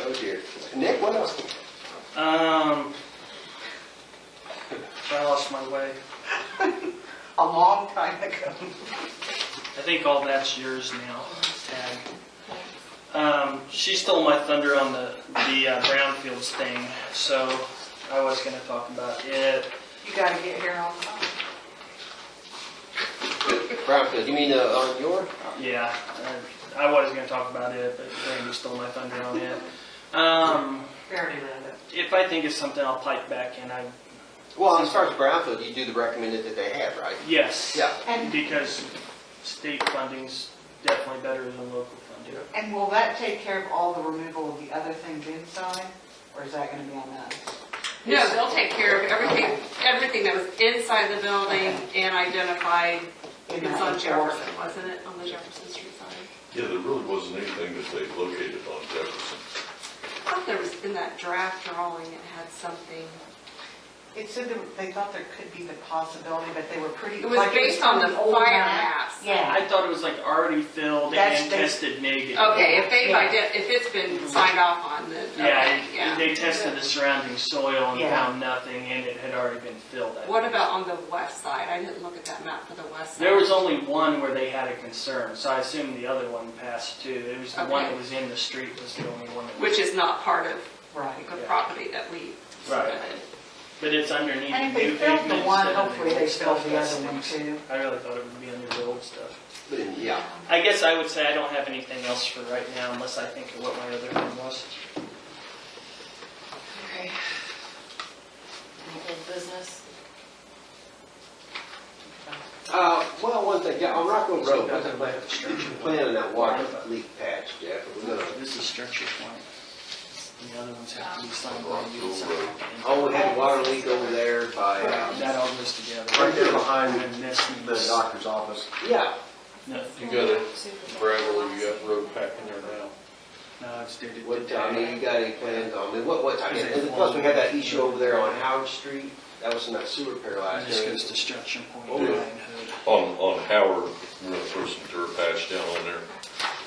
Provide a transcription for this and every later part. Oh, Nick, what else? Um, I lost my way. a long time ago. I think all that's yours now, Tag. Um, she stole my thunder on the, the uh, brownfields thing, so I was gonna talk about it. You gotta get here on time. Brownfield, you mean uh, on your? Yeah, I, I was gonna talk about it, but Randy stole my thunder on it. Um, Barely read it. if I think of something, I'll pipe back in. I, Well, as far as Brownfield, you do the recommended that they have, right? yes. Yeah. And, Because state funding's definitely better than local funding. and will that take care of all the removal of the other things inside? Or is that gonna be on us? No, they'll take care of everything, everything that was inside the building and identified. It's on Jefferson, wasn't it, on the Jefferson Street side? Yeah, there really wasn't anything that they located on Jefferson. I thought there was, in that draft drawing, it had something. It said that they thought there could be the possibility, but they were pretty. It was like, based on the pretty old fire maps. Yeah. I thought it was like already filled That's- and they- tested negative. Okay, if they've, Yeah. ident- if it's been signed off on, then, Oh, okay, Yeah, yeah. they tested the surrounding soil and Yeah. found nothing, and it had already been filled. I What think. about on the west side? I didn't look at that map for the west side. There was only one where they had a concern, so I assume the other one passed too. It was the one Okay. that was in the street was the only one. that- Which is not part of Right. the property that we Right. submitted. But it's underneath And if the they new filled the pavement one, instead of the hopefully they old filled stuff. the That's other one things. too. I really thought it would be under the old stuff. But in- Yeah. I guess I would say I don't have anything else for right now unless I think of what my other one was. Okay. Old business? Uh, well, one thing, yeah, on Rockwell So Road, what's the nothing plan? with the structure. Plan on that water leak patch, Jeff, we're gonna, This is structure point. And the other ones have to be signed by you. oh, we had a water leak over there by, uh, That all goes together. Right there behind And this the needs- doctor's office. yeah, No, You got a gravel, you got road pack in there now. no, it's dated what time, I mean, today. you got any plans on, it? what, what time? And plus, we had that issue over there on Howard Street, that was in that sewer pair And last This year. goes to structure point Oh, nine yeah. hood. On, on Howard, we're gonna throw some dirt patch down on there,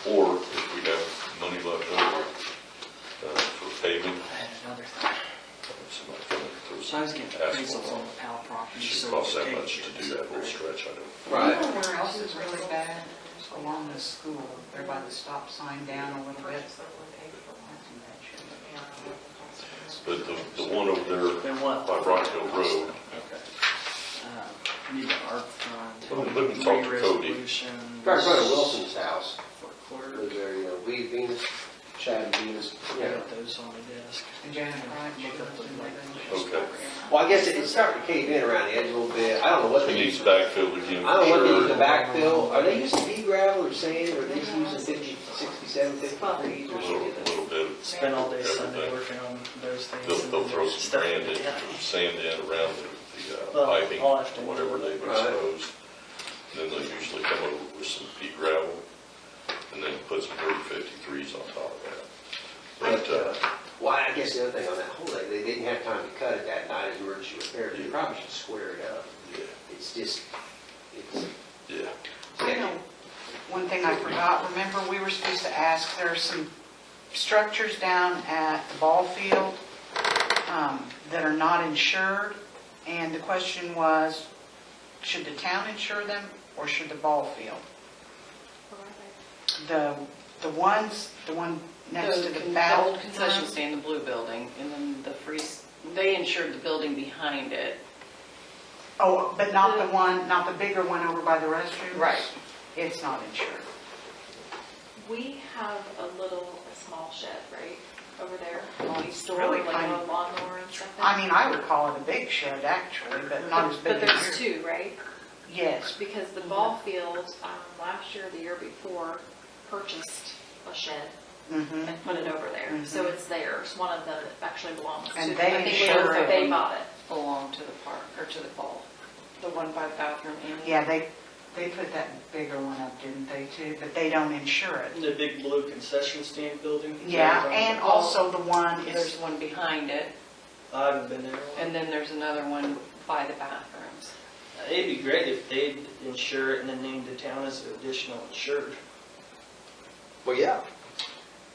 or if we have money left over, uh, for paving, I had another thing. somebody can throw So I was getting some appraisals asphalt on on. the Powell It property, Should so. cost it's that taken much into to do that whole consideration. stretch, I You don't. Right, know where else is really bad? Along the school, there by the stop sign down a little bit. But the, the one over there They want. by Rockville Road, Um, Need an art Well, fund. let me talk to three Cody. resolutions. right in front of Wilson's house, For clerk. was there, you know, we, Venus, Chad and Venus. I got those on my desk. And Janet Wright, she Look up lives the in like, Lincoln. okay. well, I guess it- it's starting to cave in around the edge a little bit, I don't know what It they needs use, backfilled again. I don't know what they sure. use to backfill, are they using pea gravel or sand, or are they just using fifty, sixty-seven, fifty-three? A little, little bit. Spent all day Sunday Everything. working on those things. They'll, and they'll throw some stuff. sand in, Yeah. sand in around the, the uh, Well, piping, I'll have to- whatever they've Right. exposed. Then they'll usually come over with some pea gravel and then put some dirt fifty-threes on top of that. But, uh, But, uh, well, I guess the other thing on that whole thing, they didn't have time to cut it that night as emergency repair, they probably should square it up. yeah, It's just, it's, yeah. I know, one thing I forgot, remember, we were supposed to ask, there are some structures down at the ball field um, that are not insured, and the question was, should the town insure them, or should the ball field? The, the ones, the one next to the con- bat. old concession stand, the blue building, and then the free, s- they insured the building behind it. Oh, but not the one, not the bigger one over by the restrooms? It's not insured. We have a little, a small shed, right, over there, we store Really like tiny. a lawnmower and stuff. in. I mean, I would call it a big shed, actually, but not as big But as Mm-hmm. there's yours. two, right? Yes, Because the ball field, um, last year, or the year before, purchased a shed mhm. and put it over there. So it's theirs, one of them actually belongs to. Mm-hmm. And them. they I think insure they- it. They bought it. Belong to the park, or to the ball, the one by bathroom and. Yeah, they, they put that bigger one up, didn't they, too? But they don't insure it. The big blue concession stand building. Yeah, and also the one There's is, one behind it, I haven't been there. and then there's another one by the bathrooms. It'd be great if they'd insure it and then name the town as additional insured. well, yeah,